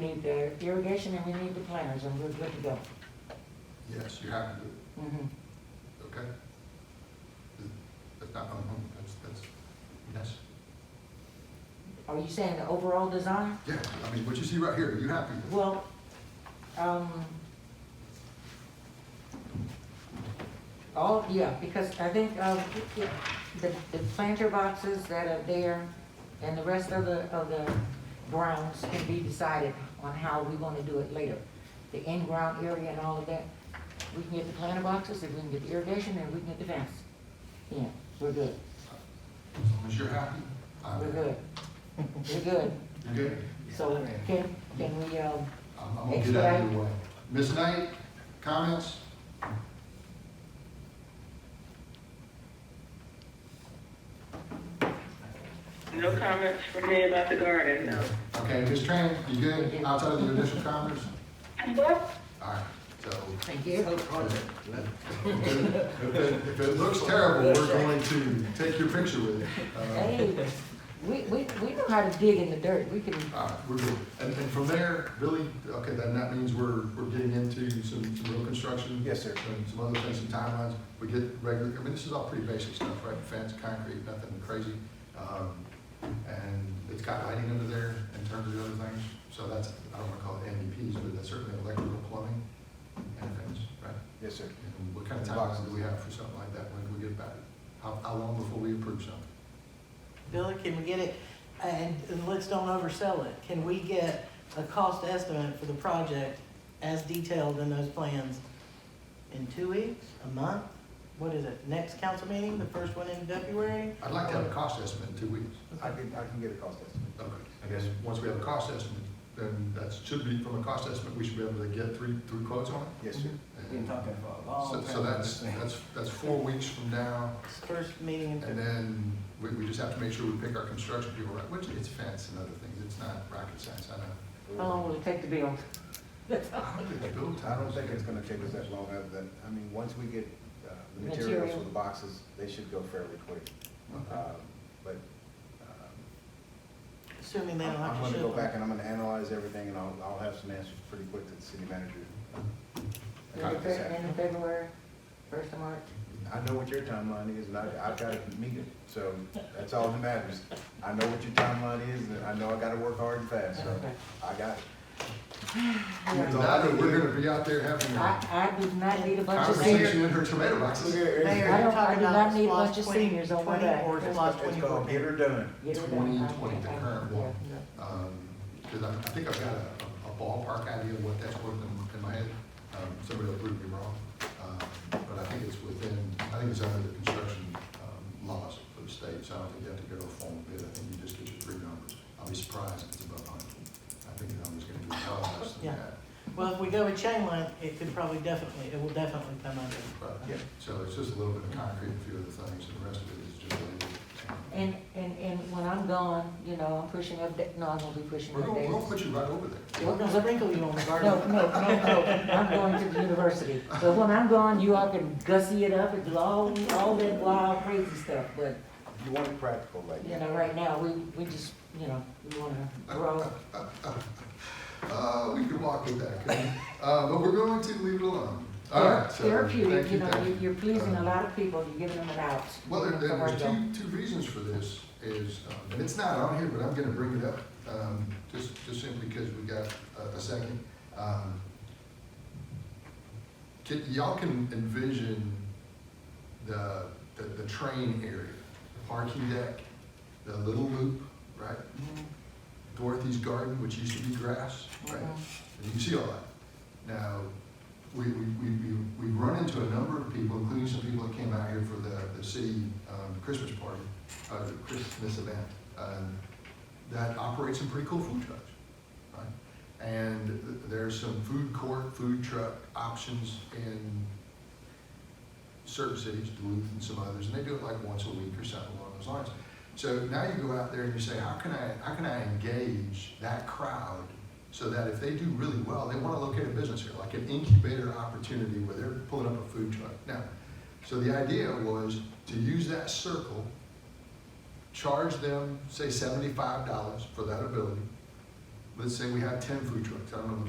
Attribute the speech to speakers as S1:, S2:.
S1: need the irrigation and we need the planters, and we're good to go.
S2: Yes, you have to do it,
S1: Mhm.
S2: okay? That's not, um, that's, that's, yes.
S1: Are you saying the overall design?
S2: Yeah, I mean, what you see right here, you happy with?
S1: Well, um, all, yeah, because I think, um, the, the planter boxes that are there and the rest of the, of the grounds can be decided on how we wanna do it later. The in-ground area and all of that, we can get the planter boxes, if we can get the irrigation, and we can get the fence. Yeah, we're good,
S2: As long as you're happy, I'm,
S1: we're good, we're good.
S2: you're good?
S1: So can, can we, um,
S2: I'm, I'm gonna get out of your way. Ms. Knight, comments?
S3: No comments from me about the garden, no.
S2: Okay, Ms. Tran, you good outside of your initial comments? All right, so,
S1: thank you.
S2: if it- if it, if it looks terrible, we're going to take your picture with it. Uh,
S1: Hey, we, we, we know how to dig in the dirt, we can,
S2: All right, we're good. And, and from there, Billy, okay, then that means we're, we're getting into some, some real construction.
S4: Yes, sir.
S2: And some other things, some timelines. We get regular, I mean, this is all pretty basic stuff, right? Fence, concrete, nothing crazy. Um, and it's got lighting under there in terms of the other things. So that's, I don't wanna call it NDPs, but that's certainly electrical plumbing and things, right?
S4: Yes, sir.
S2: And what kind of timeline do we have for something like that? When can we get back? How, how long before we approve something?
S5: Billy, can we get it, and and let's don't oversell it, can we get a cost estimate for the project as detailed in those plans in two weeks, a month? What is it, next council meeting, the first one in February?
S2: I'd like to have a cost estimate in two weeks.
S4: I can, I can get a cost estimate.
S2: Okay, I guess once we have a cost estimate, then that should be, from a cost estimate, we should be able to get three, three quotes on it.
S4: Yes, sir.
S2: And
S6: for a
S2: So, so that's, that's, that's four weeks from now,
S5: It's First meeting
S2: and
S5: in February.
S2: then we, we just have to make sure we pick our construction people right, which it's fence and other things, it's not rocket science, I know.
S1: how long will it take to build?
S2: I don't think it's built,
S4: I don't think it's gonna take us that long, other than, I mean, once we get, uh, the materials
S1: Material.
S4: for the boxes, they should go fairly quick.
S2: Okay.
S4: Um, But, um,
S5: assuming they don't
S4: I'm
S5: have to
S4: gonna
S5: show
S4: go
S5: them.
S4: back and I'm gonna analyze everything, and I'll, I'll have some answers pretty quick to the city manager.
S1: End of Feb- end of February, first of March?
S4: I know what your timeline is, and I, I've got to meet it, so that's all that matters. I know what your timeline is, and I know I gotta work hard and fast, so
S1: Okay.
S4: I got it.
S2: And now that we're gonna be out there having a
S1: I, I do not need a bunch of
S2: conversation
S1: seniors.
S2: in her tomato boxes.
S5: Mayor,
S1: I
S5: you're
S1: don't- I
S5: talking
S1: do
S5: about
S1: not need a
S5: Lodge
S1: bunch of
S5: 20
S1: seniors on my
S5: 20
S1: back.
S5: Or
S4: It's
S5: Lodge
S4: called- it's
S5: twenty-four.
S4: called get her done.
S1: Get rid of
S2: 20,
S1: it.
S2: the current one. Um, cause I, I think I've got a, a ballpark idea of what that's worth in, in my head. Um, somebody will prove me wrong. Um, but I think it's within, I think it's under the construction, um, laws for the state, so I don't think you have to go to a formal bid. I think you just get your three numbers. I'll be surprised if it's above hundred. I think the number's gonna be a lot less than
S5: Yeah.
S2: that.
S5: Well, if we go with chain link, it could probably definitely, it will definitely come under.
S2: But,
S4: Yeah.
S2: so it's just a little bit of concrete, a few other things, and the rest of it is just um, labor.
S1: And, and, and when I'm gone, you know, I'm pushing up, da- no, I'm gonna be pushing
S2: We're
S1: up
S2: gonna, we're gonna
S1: days.
S2: put you right over there.
S5: We're gonna sprinkle you on the garden.
S1: No, no, no, no, I'm going to the university. But when I'm gone, you all can gussy it up and do all, all that wild crazy stuff, but
S4: You want it practical, like.
S1: You know, right now, we, we just, you know, we wanna grow.
S2: Uh, we could walk with that, couldn't we? Uh, but we're going to leave it alone. All
S1: They're
S2: right, so,
S1: Therapeutic,
S2: thank
S1: you know,
S2: thank
S1: you- you're pleasing a
S2: Uh,
S1: lot of people, you're giving them an out.
S2: Well, there,
S1: Give them
S2: there's
S1: somewhere to
S2: two, two reasons for this is, um, and it's not on here, but I'm gonna bring it up, um, just, just simply because we got a, a second. Um, Can, y'all can envision the, the, the train area, the parking deck, the little loop, right? Dorothy's garden, which used to be grass,
S1: go.
S2: right?
S1: Mhm.
S2: And you can see all that. Now, we, we, we, we- we run into a number of people, including some people that came out here for the, the city, um, Christmas party, uh, the Christmas event, um, that operate some pretty cool food trucks, right? And th- there's some food court, food truck options in certain cities, Duluth and some others, and they do it like once a week or something along those lines. So now you go out there and you say, how can I, how can I engage that crowd so that if they do really well, they want to locate a business here, like an incubator opportunity where they're pulling up a food truck. Now, so the idea was to use that circle, charge them, say seventy-five dollars for that ability, let's say we have ten food trucks, I don't know,